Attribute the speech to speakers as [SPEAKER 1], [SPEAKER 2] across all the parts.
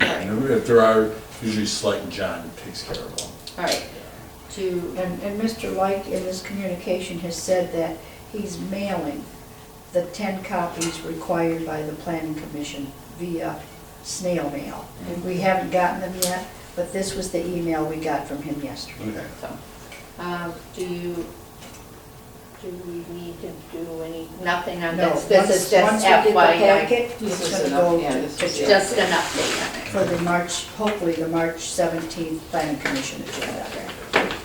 [SPEAKER 1] and if there are, usually Slight and John takes care of them.
[SPEAKER 2] All right, to,
[SPEAKER 3] And, and Mr. Light in his communication has said that he's mailing the ten copies required by the planning commission via snail mail. And we haven't gotten them yet, but this was the email we got from him yesterday.
[SPEAKER 1] Okay.
[SPEAKER 2] so, um, do you, do we need to do any, nothing on
[SPEAKER 3] No,
[SPEAKER 2] this? This
[SPEAKER 3] once-
[SPEAKER 2] is just
[SPEAKER 3] once we get the
[SPEAKER 2] FYI.
[SPEAKER 3] packet, It's
[SPEAKER 4] This is
[SPEAKER 3] gonna
[SPEAKER 4] enough,
[SPEAKER 3] go
[SPEAKER 4] yeah,
[SPEAKER 3] to-
[SPEAKER 4] this
[SPEAKER 3] to
[SPEAKER 4] is-
[SPEAKER 3] Jeff
[SPEAKER 2] Just an update
[SPEAKER 3] For the March, hopefully the March seventeenth planning commission agenda.
[SPEAKER 2] on it.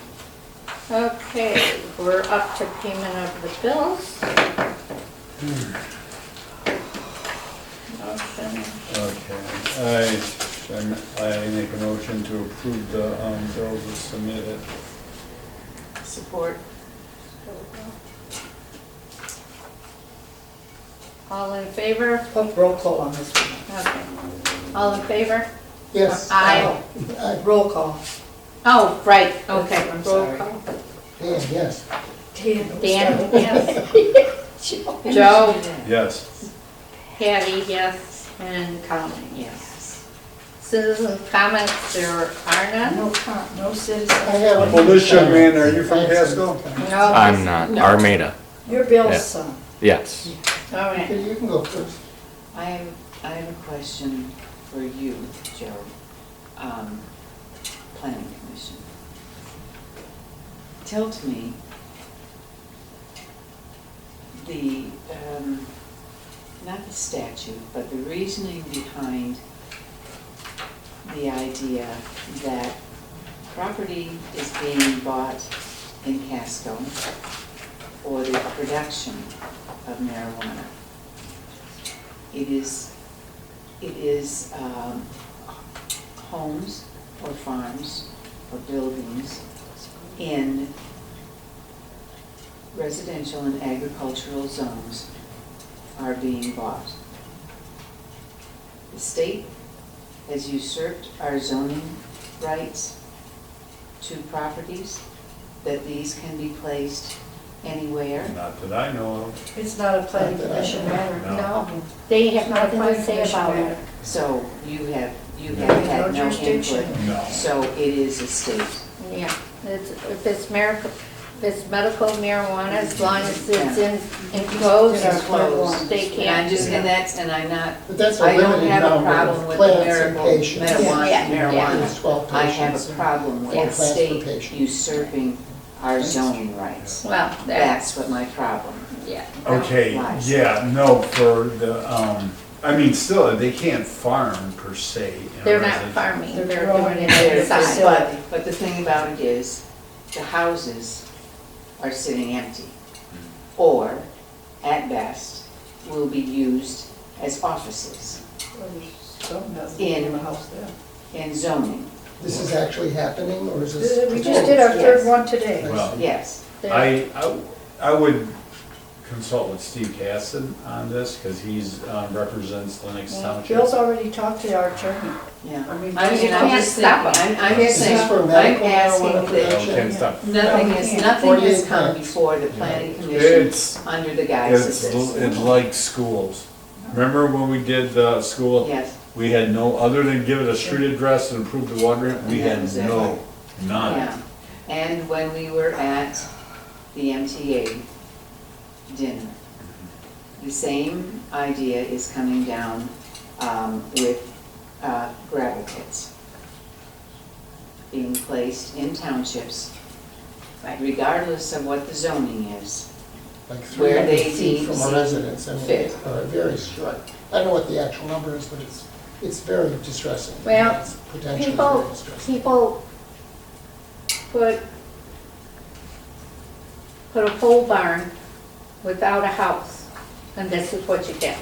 [SPEAKER 2] Okay, we're up to payment of the bills. Motion,
[SPEAKER 5] Okay, I, I'm- I make a motion to approve the um, bills as submitted.
[SPEAKER 4] Support.
[SPEAKER 2] all in favor?
[SPEAKER 3] Oh, Roll call on this one.
[SPEAKER 2] Okay. All in favor?
[SPEAKER 6] Yes.
[SPEAKER 2] Aye.
[SPEAKER 6] Aye.
[SPEAKER 3] Roll call.
[SPEAKER 2] Oh, right, okay.
[SPEAKER 4] I'm
[SPEAKER 2] roll
[SPEAKER 4] sorry.
[SPEAKER 2] call.
[SPEAKER 6] Dan, yes.
[SPEAKER 3] Dan.
[SPEAKER 2] Dan, yes.
[SPEAKER 4] Joe?
[SPEAKER 2] Joe?
[SPEAKER 5] Yes,
[SPEAKER 2] Patty, yes, and Colleen, yes. Citizen comments, there are none?
[SPEAKER 3] No, con- no
[SPEAKER 6] I
[SPEAKER 3] citizen.
[SPEAKER 6] have a-
[SPEAKER 5] Felicia, man, are you from Pasco?
[SPEAKER 2] No.
[SPEAKER 7] I'm not, Armada,
[SPEAKER 3] Your bill's
[SPEAKER 7] Yeah.
[SPEAKER 3] son.
[SPEAKER 7] yes.
[SPEAKER 2] All right,
[SPEAKER 6] Okay, You can go first.
[SPEAKER 4] I have, I have a question for you, Joe, um, planning commission. Tell to me, the, um, not the statute, but the reasoning behind the idea that property is being bought in Casco for the production of marijuana. It is, it is um, homes or farms or buildings in residential and agricultural zones are being bought. The state has usurped our zoning rights to properties, that these can be placed anywhere.
[SPEAKER 5] not that I know of.
[SPEAKER 3] It's not a planning commission matter.
[SPEAKER 5] No.
[SPEAKER 2] they
[SPEAKER 3] It's
[SPEAKER 2] have
[SPEAKER 3] not
[SPEAKER 2] nothing
[SPEAKER 3] a planning
[SPEAKER 2] to say
[SPEAKER 3] commission
[SPEAKER 2] about it.
[SPEAKER 3] matter.
[SPEAKER 4] So you have, you have had
[SPEAKER 3] No
[SPEAKER 4] no
[SPEAKER 3] jurisdiction.
[SPEAKER 4] input.
[SPEAKER 5] No.
[SPEAKER 4] So it is a state.
[SPEAKER 2] Yeah, it's, if it's medical, if it's medical marijuana, as long as it's in, enclosed
[SPEAKER 4] It's
[SPEAKER 2] or
[SPEAKER 4] closed.
[SPEAKER 2] they
[SPEAKER 4] And I'm
[SPEAKER 2] can't.
[SPEAKER 4] just, and that's, and I'm not,
[SPEAKER 6] But that's a
[SPEAKER 4] I don't
[SPEAKER 6] limited
[SPEAKER 4] have a
[SPEAKER 6] number of
[SPEAKER 4] problem with
[SPEAKER 6] plants and
[SPEAKER 4] medical
[SPEAKER 6] patients.
[SPEAKER 4] marijuana,
[SPEAKER 2] Yeah, yeah.
[SPEAKER 6] It's
[SPEAKER 4] marijuana.
[SPEAKER 6] twelve
[SPEAKER 4] I have
[SPEAKER 6] patients
[SPEAKER 4] a
[SPEAKER 6] and
[SPEAKER 4] problem with
[SPEAKER 6] four
[SPEAKER 4] the
[SPEAKER 6] plants per
[SPEAKER 4] state
[SPEAKER 6] patient.
[SPEAKER 4] usurping our zoning rights.
[SPEAKER 2] Well, that's,
[SPEAKER 4] That's what my problem.
[SPEAKER 2] yeah.
[SPEAKER 1] Okay,
[SPEAKER 4] Lies.
[SPEAKER 1] yeah, no, for the, um, I mean, still, they can't farm per se. in a
[SPEAKER 2] They're not
[SPEAKER 1] residential-
[SPEAKER 2] farming,
[SPEAKER 3] They're
[SPEAKER 2] they're
[SPEAKER 3] growing
[SPEAKER 2] doing it
[SPEAKER 3] their
[SPEAKER 4] There's-
[SPEAKER 3] facility.
[SPEAKER 2] inside.
[SPEAKER 4] But, but the thing about it is, the houses are sitting empty. Or, at best, will be used as offices
[SPEAKER 3] Well, there's Some doesn't
[SPEAKER 4] In.
[SPEAKER 3] in the house there.
[SPEAKER 4] in zoning,
[SPEAKER 6] This is actually happening, or is this?
[SPEAKER 3] Uh, We just did our
[SPEAKER 4] Yes.
[SPEAKER 3] third one today.
[SPEAKER 1] Well,
[SPEAKER 6] Um,
[SPEAKER 4] yes.
[SPEAKER 2] They're-
[SPEAKER 1] I, I- I would consult with Steve Casson on this, because he's, um, represents Lennox Township.
[SPEAKER 3] Bill's already talked to our attorney.
[SPEAKER 4] Yeah.
[SPEAKER 3] I mean,
[SPEAKER 4] I mean, I'm
[SPEAKER 2] can't
[SPEAKER 4] just thinking,
[SPEAKER 2] stop
[SPEAKER 4] I'm, I'm
[SPEAKER 6] Is
[SPEAKER 4] just saying,
[SPEAKER 6] this for
[SPEAKER 4] I'm
[SPEAKER 6] medical marijuana
[SPEAKER 4] asking that,
[SPEAKER 1] Okay, stop.
[SPEAKER 4] nothing
[SPEAKER 3] Yeah.
[SPEAKER 4] has, nothing has
[SPEAKER 6] 48
[SPEAKER 4] come
[SPEAKER 6] times.
[SPEAKER 4] before the planning commission
[SPEAKER 1] It's,
[SPEAKER 4] under the guise
[SPEAKER 1] it's,
[SPEAKER 4] of
[SPEAKER 1] l-
[SPEAKER 4] this.
[SPEAKER 1] it's like schools. Remember when we did the school?
[SPEAKER 4] Yes,
[SPEAKER 1] We had no, other than give it a street address and approve the water, rate, we
[SPEAKER 4] Yeah,
[SPEAKER 1] had
[SPEAKER 4] exactly.
[SPEAKER 1] no, none.
[SPEAKER 4] yeah. And when we were at the MTA dinner, the same idea is coming down um, with uh, gravel pits being placed in townships, regardless of what the zoning is.
[SPEAKER 6] Like three
[SPEAKER 4] where
[SPEAKER 6] hundred
[SPEAKER 4] they
[SPEAKER 6] feet
[SPEAKER 4] deem
[SPEAKER 6] from a
[SPEAKER 4] seem
[SPEAKER 6] residence, I mean,
[SPEAKER 4] fit.
[SPEAKER 6] it's uh, very short. I don't know what the actual number is, but it's, it's very distressing.
[SPEAKER 2] Well,
[SPEAKER 6] It's Potentially very
[SPEAKER 2] People,
[SPEAKER 6] distressing.
[SPEAKER 2] people put, put a pole barn without a house, and this is what you get.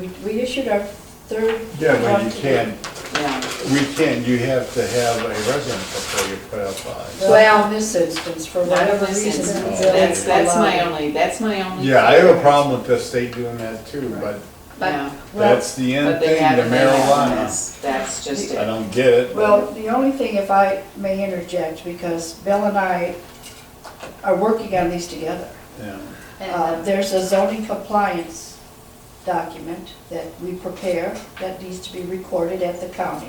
[SPEAKER 3] We, we issued our third.
[SPEAKER 1] Yeah, but
[SPEAKER 3] one
[SPEAKER 1] you
[SPEAKER 3] today.
[SPEAKER 1] can't,
[SPEAKER 4] Yeah,
[SPEAKER 1] we can't, you have to have a residence before you put up a.
[SPEAKER 3] Well, in this instance, for
[SPEAKER 4] Not in
[SPEAKER 3] whatever
[SPEAKER 4] this
[SPEAKER 3] reason.
[SPEAKER 4] instance.
[SPEAKER 3] Bill
[SPEAKER 4] That's, that's my
[SPEAKER 3] allowed it.
[SPEAKER 4] only, that's my only.
[SPEAKER 1] Yeah, I have a problem with the state doing that too, but
[SPEAKER 2] But
[SPEAKER 4] Yeah,
[SPEAKER 1] that's the end
[SPEAKER 4] but they
[SPEAKER 1] thing,
[SPEAKER 4] have,
[SPEAKER 1] the
[SPEAKER 4] they have,
[SPEAKER 1] marijuana.
[SPEAKER 4] that's, that's just
[SPEAKER 1] I
[SPEAKER 4] it.
[SPEAKER 1] don't get it. but-
[SPEAKER 3] Well, the only thing, if I may interject, because Bill and I are working on these together.
[SPEAKER 1] Yeah.
[SPEAKER 3] Uh, There's a zoning compliance document that we prepare that needs to be recorded at the county.